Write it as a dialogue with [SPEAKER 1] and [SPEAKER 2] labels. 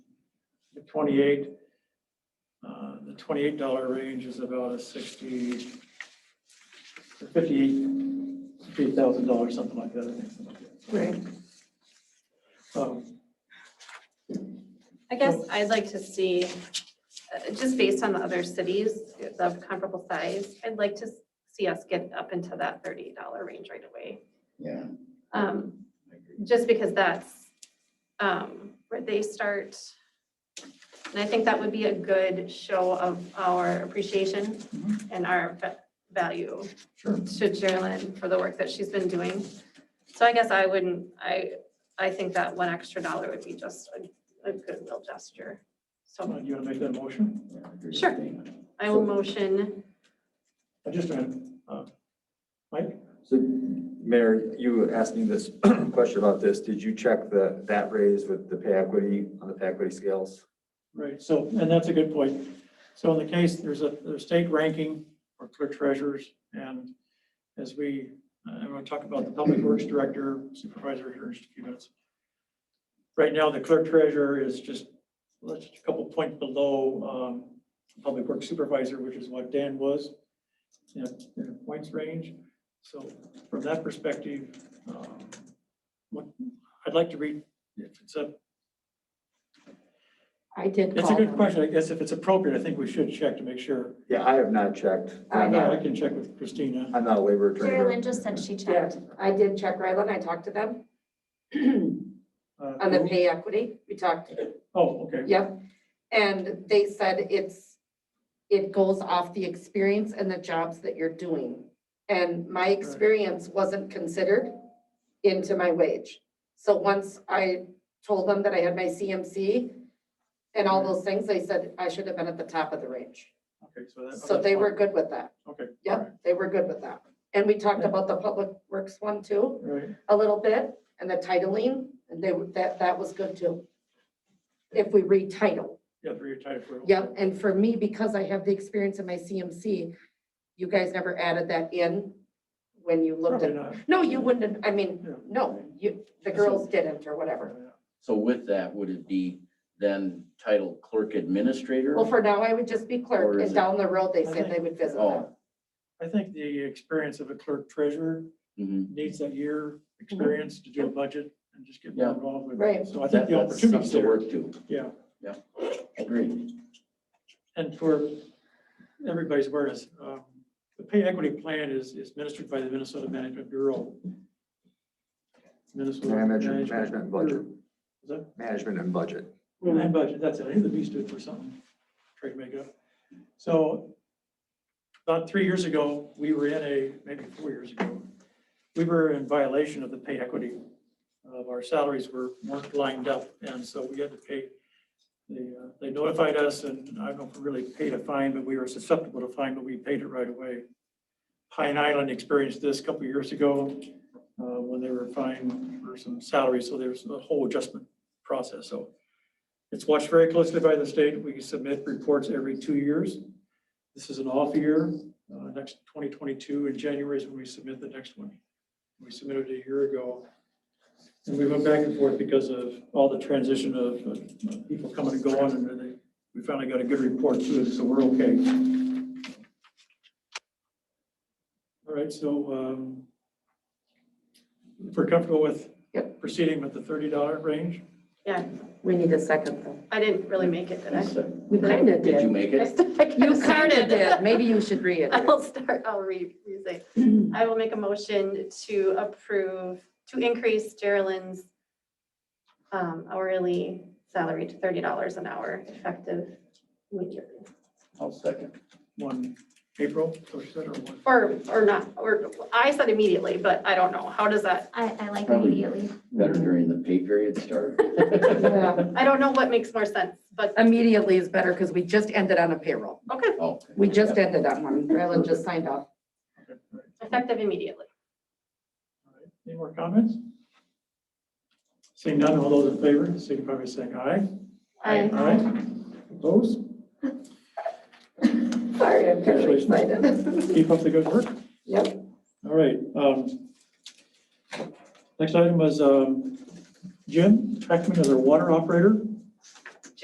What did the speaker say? [SPEAKER 1] to twenty-eight. Uh, The twenty-eight dollar range is about a sixty, to fifty-eight, fifty thousand dollars, something like that, I think.
[SPEAKER 2] Right.
[SPEAKER 1] Um,
[SPEAKER 3] I guess I'd like to see, uh, just based on the other cities of comparable size, I'd like to see us get up into that thirty dollar range right away.
[SPEAKER 4] Yeah.
[SPEAKER 3] Um, just because that's, um, where they start. And I think that would be a good show of our appreciation and our va- value
[SPEAKER 4] Sure.
[SPEAKER 3] to Jalen for the work that she's been doing. So I guess I wouldn't, I, I think that one extra dollar would be just a, a goodwill gesture. So
[SPEAKER 1] Do uh, you want to make that motion?
[SPEAKER 4] yeah, I agree with
[SPEAKER 3] Sure.
[SPEAKER 4] Dana.
[SPEAKER 3] I will motion,
[SPEAKER 1] Uh, Just a minute. Uh, Mike?
[SPEAKER 5] So Mayor, you asked me this question about this. Did you check the, that raise with the pay equity on the pay equity scales?
[SPEAKER 1] Right, so, and that's a good point. So in the case, there's a, there's state ranking for clerk treasurers, and as we, I'm gonna talk about the public works director, supervisor here in just a few minutes. Right now, the clerk treasurer is just, let's, just a couple points below, um, public works supervisor, which is what Dan was. In a, in a points range, so from that perspective, um, what, I'd like to read, if it's up
[SPEAKER 2] I did
[SPEAKER 1] it's a
[SPEAKER 2] call
[SPEAKER 1] good
[SPEAKER 2] them.
[SPEAKER 1] question. I guess if it's appropriate, I think we should check to make sure.
[SPEAKER 5] Yeah, I have not checked.
[SPEAKER 2] I
[SPEAKER 5] I'm
[SPEAKER 1] I
[SPEAKER 5] not-
[SPEAKER 1] can check with Christina.
[SPEAKER 5] I'm not a labor attorney.
[SPEAKER 6] Jerry Lynn just said she
[SPEAKER 2] Yeah,
[SPEAKER 6] checked.
[SPEAKER 2] I did check Rylan, I talked to them on
[SPEAKER 1] Uh,
[SPEAKER 2] the pay equity, we talked,
[SPEAKER 1] Oh, okay.
[SPEAKER 2] yep. And they said it's, it goes off the experience and the jobs that you're doing. And my experience wasn't considered into my wage. So once I told them that I had my CMC and all those things, they said I should have been at the top of the range.
[SPEAKER 1] Okay, so that.
[SPEAKER 2] So they were good with that.
[SPEAKER 1] Okay.
[SPEAKER 2] Yep, they were good with that. And we talked
[SPEAKER 1] Yeah.
[SPEAKER 2] about the public works one too,
[SPEAKER 1] Right.
[SPEAKER 2] a little bit, and the titling, and they, were- that, that was good too. If we retitle,
[SPEAKER 1] Yeah, three tied for.
[SPEAKER 2] yep, and for me, because I have the experience in my CMC, you guys never added that in when you looked
[SPEAKER 1] Probably
[SPEAKER 2] at,
[SPEAKER 1] not.
[SPEAKER 2] no, you wouldn't, have- I mean,
[SPEAKER 1] Yeah.
[SPEAKER 2] no, you, the girls didn't or whatever.
[SPEAKER 4] So with that, would it be then titled clerk administrator?
[SPEAKER 2] Well, for now, I would just be
[SPEAKER 4] Or
[SPEAKER 2] clerk,
[SPEAKER 4] is
[SPEAKER 2] and
[SPEAKER 4] it-
[SPEAKER 2] down the road, they said they would visit them.
[SPEAKER 4] Oh,
[SPEAKER 1] I think the experience of a clerk treasurer
[SPEAKER 4] mhm.
[SPEAKER 1] needs that year experience to do a budget and just get more
[SPEAKER 4] Yeah.
[SPEAKER 1] involved with. it.
[SPEAKER 2] Mm-hmm. Right.
[SPEAKER 1] So I think
[SPEAKER 4] That-
[SPEAKER 1] the
[SPEAKER 4] that's stuff
[SPEAKER 1] opportunity's
[SPEAKER 4] to
[SPEAKER 1] there.
[SPEAKER 4] work to.
[SPEAKER 1] Yeah.
[SPEAKER 4] Agreed.
[SPEAKER 1] And for everybody's awareness, um, the pay equity plan is, is ministered by the Minnesota Management Bureau. Minnesota.
[SPEAKER 5] Management, management and budget,
[SPEAKER 1] Is that?
[SPEAKER 5] management and budget.
[SPEAKER 1] And budget, that's it. I knew the B stood for something, try to make it up. So about three years ago, we were in a, maybe four years ago, we were in violation of the pay equity. Of our salaries were, weren't lined up, and so we had to pay. They, uh, they notified us, and I don't know if we really paid a fine, but we were susceptible to fine, but we paid it right away. Pine Island experienced this a couple of years ago, uh, when they were fined for some salaries, so there's a whole adjustment process, so. It's watched very closely by the state. We submit reports every two years. This is an off year. Uh, Next 2022 in January is when we submit the next one. We submitted a year ago. And we went back and forth because of all the transition of uh, people coming and going and they- we finally got a good report to it, so we're okay. All right, so um, if we're comfortable with proceeding with the $30 range,
[SPEAKER 3] yeah,
[SPEAKER 2] We need a second though.
[SPEAKER 3] I didn't really make it, did I?
[SPEAKER 2] We kinda
[SPEAKER 4] Did you make it?
[SPEAKER 2] You
[SPEAKER 3] You
[SPEAKER 2] started it. Maybe you should read it.
[SPEAKER 3] I'll start, I'll read, say, I will make a motion to approve, to increase Geraldine's um, hourly salary to thirty dollars an hour effective immediately.
[SPEAKER 4] I'll second.
[SPEAKER 1] one April, so she said, or one?
[SPEAKER 3] Or, or not, or, I said immediately, but I don't know, how does that,
[SPEAKER 6] I, I like
[SPEAKER 4] Probably.
[SPEAKER 6] immediately.
[SPEAKER 4] Better during the pay period start.
[SPEAKER 2] Yeah.
[SPEAKER 3] I don't know what makes more sense, but,
[SPEAKER 2] Immediately is better because we just ended on a payroll.
[SPEAKER 3] okay,
[SPEAKER 4] Oh.
[SPEAKER 2] We just ended on one. Rylan just signed off.
[SPEAKER 3] effective immediately.
[SPEAKER 1] All right, Any more comments? Seeing none, all those in favor, signify by saying aye.
[SPEAKER 3] I,
[SPEAKER 1] Aye. Opposed?
[SPEAKER 2] Sorry, I'm
[SPEAKER 1] kinda
[SPEAKER 2] excited.
[SPEAKER 1] Keep up the good work.
[SPEAKER 2] Yep.
[SPEAKER 1] All right. um, Next item was um, Jim Treckman as our water operator.